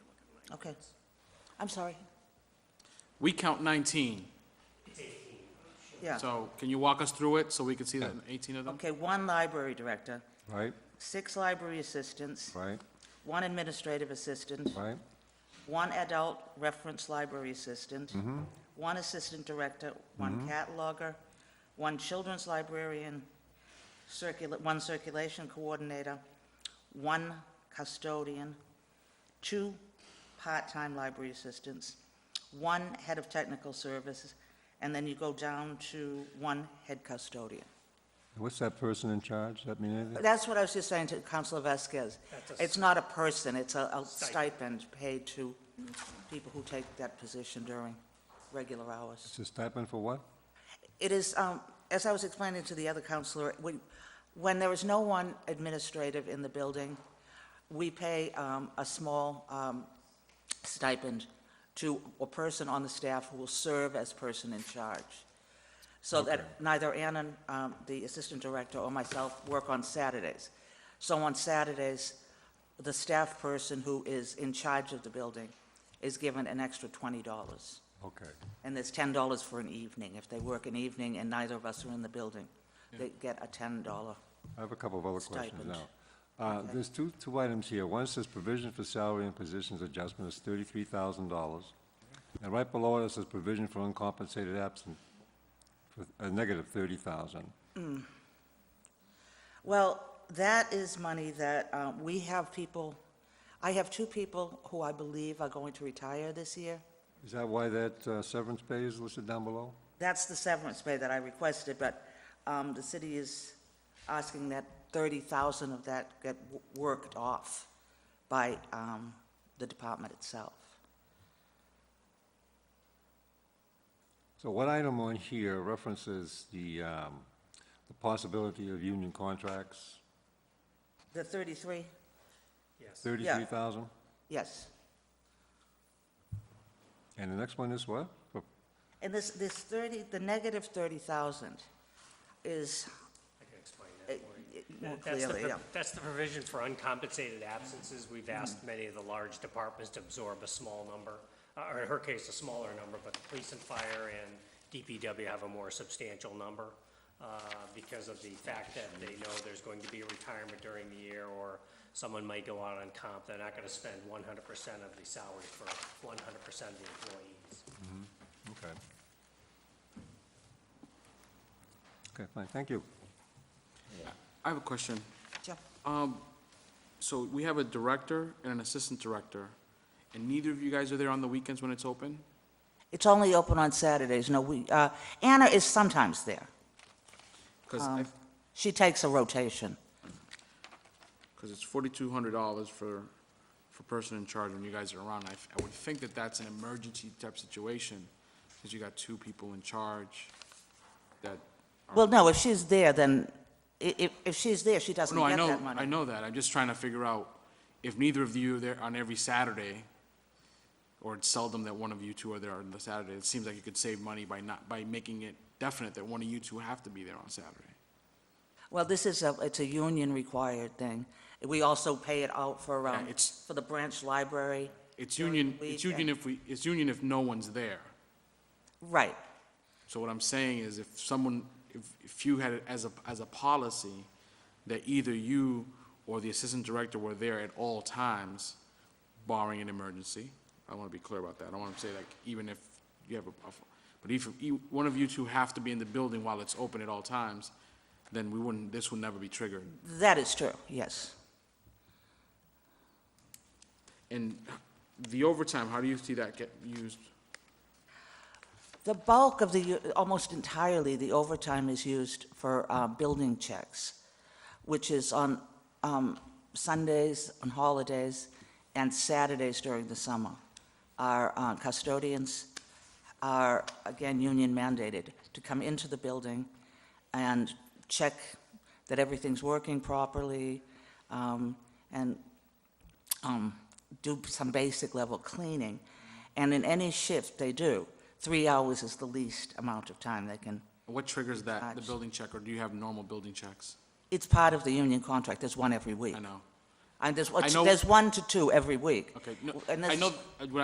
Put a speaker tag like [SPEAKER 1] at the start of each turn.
[SPEAKER 1] Okay. I'm sorry.
[SPEAKER 2] We count 19,
[SPEAKER 1] Yeah.
[SPEAKER 2] so can you walk us through it so we can see that 18
[SPEAKER 3] um,
[SPEAKER 2] of them?
[SPEAKER 1] Okay, one library director,
[SPEAKER 3] Right,
[SPEAKER 1] six library assistants,
[SPEAKER 3] right,
[SPEAKER 1] one administrative assistant,
[SPEAKER 3] right,
[SPEAKER 1] one adult reference library assistant,
[SPEAKER 3] Mm-hmm.
[SPEAKER 1] one assistant director, one cataloger, one children's librarian, circula, one circulation coordinator, one custodian, two part-time library assistants, one head of technical services, and then you go down to one head custodian.
[SPEAKER 3] What's that person in charge? Does that mean anything?
[SPEAKER 1] That's what I was just saying to Councilor Vasquez. It's not a person, it's a a stipend paid to people who take that position during regular hours.
[SPEAKER 3] It's a stipend for what?
[SPEAKER 1] It is, um, as I was explaining to the other counselor, when- when there is no one administrative in the building, we pay um, a small um, stipend to a person on the staff who will serve as person in charge, so that neither Anna, um, the assistant director, or myself work on Saturdays. So on Saturdays, the staff person who is in charge of the building is given an extra $20.
[SPEAKER 3] Okay,
[SPEAKER 1] And there's ten dollars for an evening. If they work an evening and neither of us are in the building, they get a ten dollar.
[SPEAKER 3] I have a couple of other questions
[SPEAKER 1] Stipend.
[SPEAKER 3] now. Uh, There's two, two items here. One says provision for salary and positions adjustment is thirty-three thousand dollars. And right below it says provision for uncompensated absent, for a negative thirty thousand.
[SPEAKER 1] Well, that is money that, uh, we have people, I have two people who I believe are going to retire this year.
[SPEAKER 3] Is that why that uh, severance pay is listed down below?
[SPEAKER 1] That's the severance pay that I requested, but, um, the city is asking that thirty thousand of that get w- worked off by, um, the department itself.
[SPEAKER 3] So what item on here references the, um, the possibility of union contracts?
[SPEAKER 1] The thirty-three?
[SPEAKER 3] Thirty-three thousand?
[SPEAKER 1] Yes.
[SPEAKER 3] And the next one is what? Oh, Pro-
[SPEAKER 1] And this, this 30, the negative 30,000 is,
[SPEAKER 4] I can explain
[SPEAKER 1] uh,
[SPEAKER 4] that for you.
[SPEAKER 1] more
[SPEAKER 4] That's the
[SPEAKER 1] clearly,
[SPEAKER 4] pro-
[SPEAKER 1] yeah. Mm-hmm.
[SPEAKER 4] That's the provision for uncompensated absences. We've asked many of the large departments to absorb a small number, uh, or in her case, a smaller number, but the police and fire and DPW have a more substantial number uh, because of the fact that they know there's going to be a retirement during the year or someone might go out on comp. They're not going to spend 100% of the salary for 100% of the employees.
[SPEAKER 3] Okay. Okay, fine, thank you.
[SPEAKER 2] I have a question.
[SPEAKER 1] Jeff,
[SPEAKER 2] So we have a director and an assistant director, and neither of you guys are there on the weekends when it's open?
[SPEAKER 1] It's only open on Saturdays, no, we, uh, Anna is sometimes there.
[SPEAKER 2] Because,
[SPEAKER 1] She takes a rotation.
[SPEAKER 2] because it's $4,200 for, for person in charge when you guys are around. I, f- I would think that that's an emergency type situation, because you got two people in charge that,
[SPEAKER 1] Well, no, if she's there, then, i- if, if she's there, she doesn't
[SPEAKER 2] Oh, no, I
[SPEAKER 1] get
[SPEAKER 2] know,
[SPEAKER 1] that
[SPEAKER 2] I
[SPEAKER 1] money.
[SPEAKER 2] know that. I'm just trying to figure out if neither of you are there on every Saturday, or it's seldom that one of you two are there on the Saturday, it seems like you could save money by not, by making it definite that one of you two have to be there on Saturday.
[SPEAKER 1] Well, this is a, it's a union-required thing. We also pay it out for, um,
[SPEAKER 2] Yeah, it's-
[SPEAKER 1] for the branch library.
[SPEAKER 2] It's
[SPEAKER 1] During the
[SPEAKER 2] union, it's
[SPEAKER 1] week
[SPEAKER 2] union if we, it's union if no one's there.
[SPEAKER 1] Right,
[SPEAKER 2] So what I'm saying is if someone, if, if you had it as a, as a policy that either you or the assistant director were there at all times barring an emergency, I want to be clear about that. I want to say like even if you have a, but if you, one of you two have to be in the building while it's open at all times, then we wouldn't, this would never be triggered.
[SPEAKER 1] that is true, yes.
[SPEAKER 2] And the overtime, how do you see that get used?
[SPEAKER 1] The bulk of the, almost entirely, the overtime is used for uh, building checks, which is on um, Sundays, on holidays, and Saturdays during the summer. Our uh, custodians are, again, union mandated to come into the building and check that everything's working properly, um, and um, do some basic level cleaning. And in any shift they do, three hours is the least amount of time they can.
[SPEAKER 2] What triggers that, the
[SPEAKER 1] Actually-
[SPEAKER 2] building check, or do you have normal building checks?
[SPEAKER 1] It's part of the union contract, there's one every week.
[SPEAKER 2] I know.
[SPEAKER 1] And there's, what's-
[SPEAKER 2] know-
[SPEAKER 1] there's one to two every week.
[SPEAKER 2] Okay, no,
[SPEAKER 1] And
[SPEAKER 2] I
[SPEAKER 1] this-
[SPEAKER 2] know, uh, what